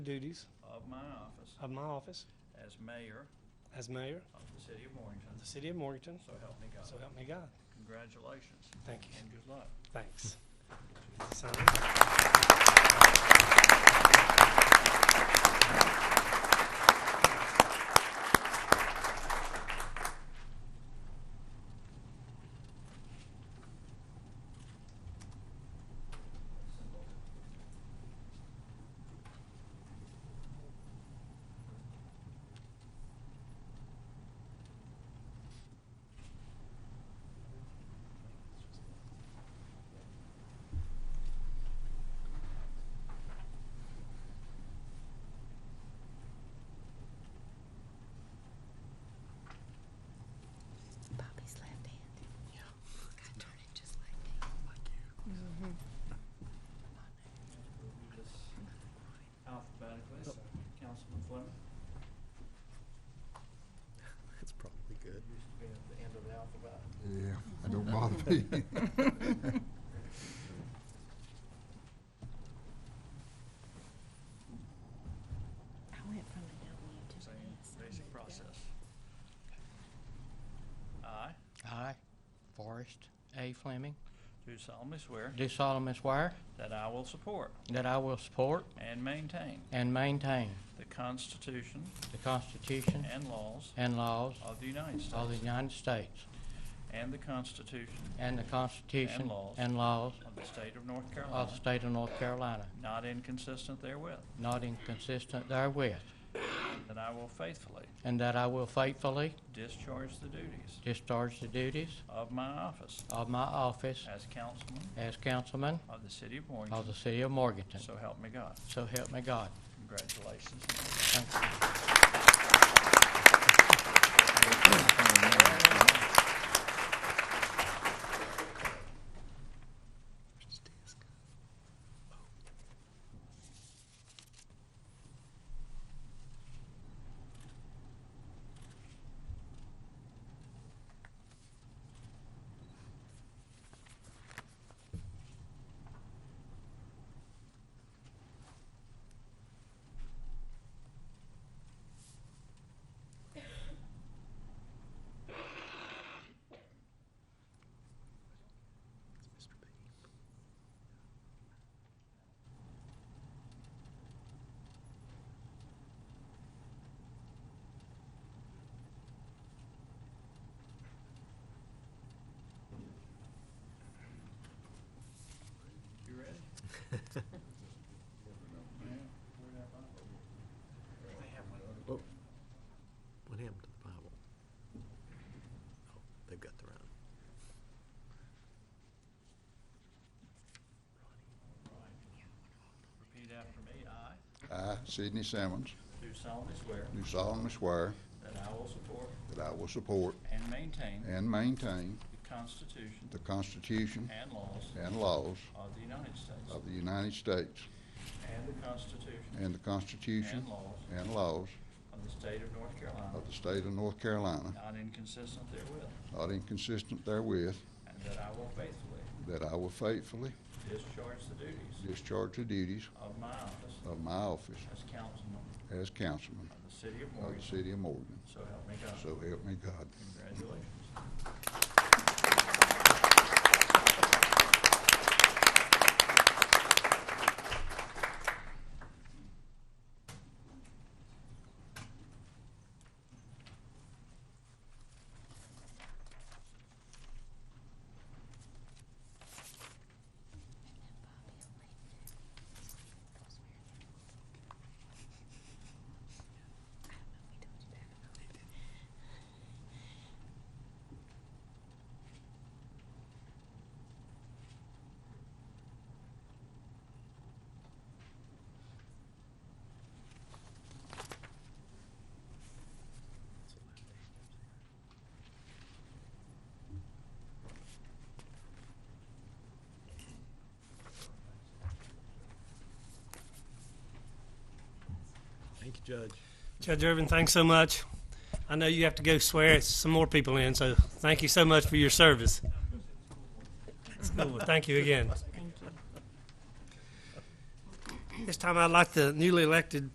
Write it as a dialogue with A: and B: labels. A: duties
B: of my office
A: of my office
B: as mayor
A: as mayor
B: of the city of Morganton.
A: of the city of Morganton.
B: So help me God.
A: So help me God.
B: Congratulations
A: Thank you.
B: and good luck.
A: Thanks. Sign.
C: Bobby's left hand. Yeah. I turn it just like that. Like you. Mm-hmm.
B: We'll do this Alphabetically, so Councilman Fleming.
D: That's probably good.
B: Used to be at the end of the alphabet.
D: Yeah, I don't bother me.
C: I went from a W to an
B: Same
C: S. I
B: basic
C: moved up.
B: process. I
E: I, Forrest A. Fleming,
B: do solemnly swear
E: do solemnly swear
B: that I will support
E: that I will support
B: and maintain
E: and maintain
B: the Constitution
E: the Constitution
B: and laws
E: and laws
B: of the United
E: of the
B: States
E: United States
B: and the Constitution
E: and the Constitution
B: laws.
E: and laws
B: of the State of North
E: of
B: Carolina,
E: the state of North Carolina,
B: not inconsistent therewith,
E: not inconsistent therewith,
B: that I will faithfully
E: and that I will faithfully
B: discharge the duties
E: discharge the duties
B: of my office
E: of my office
B: as councilman
E: as councilman
B: of the city of
E: of
B: Morganton.
E: the city of Morganton.
B: So help me God.
E: So help me God.
B: Congratulations.
E: Thank you.
B: You ready?
D: What happened to the Bible? Oh, they've got the round.
B: Repeat after me. I
F: I, Sidney Simmons,
B: do solemnly swear
F: do solemnly swear
B: that I will support
F: that I will support
B: and maintain
F: and maintain
B: the Constitution
F: the Constitution
B: and laws
F: and laws
B: of the United States
F: of the United States
B: and the Constitution
F: and the Constitution
B: and laws
F: and laws
B: of the state of North Carolina,
F: of the state of North Carolina,
B: not inconsistent therewith,
F: not inconsistent therewith,
B: and that I will faithfully
F: that I will faithfully
B: discharge the duties
F: discharge the duties
B: of my office
F: of my office
B: as councilman
F: as councilman
B: of the city of
F: of the
B: Morganton.
F: city of Morgan.
B: So help me God.
F: So help me God.
B: Congratulations.
C: I don't know if we told you that or not.
D: Thank you, Judge.
A: Judge Irvin, thanks so much. I know you have to go swear some more people in, so thank you so much for your service. School, Thank you again.
C: Thank you.
A: This time I'd like the newly elected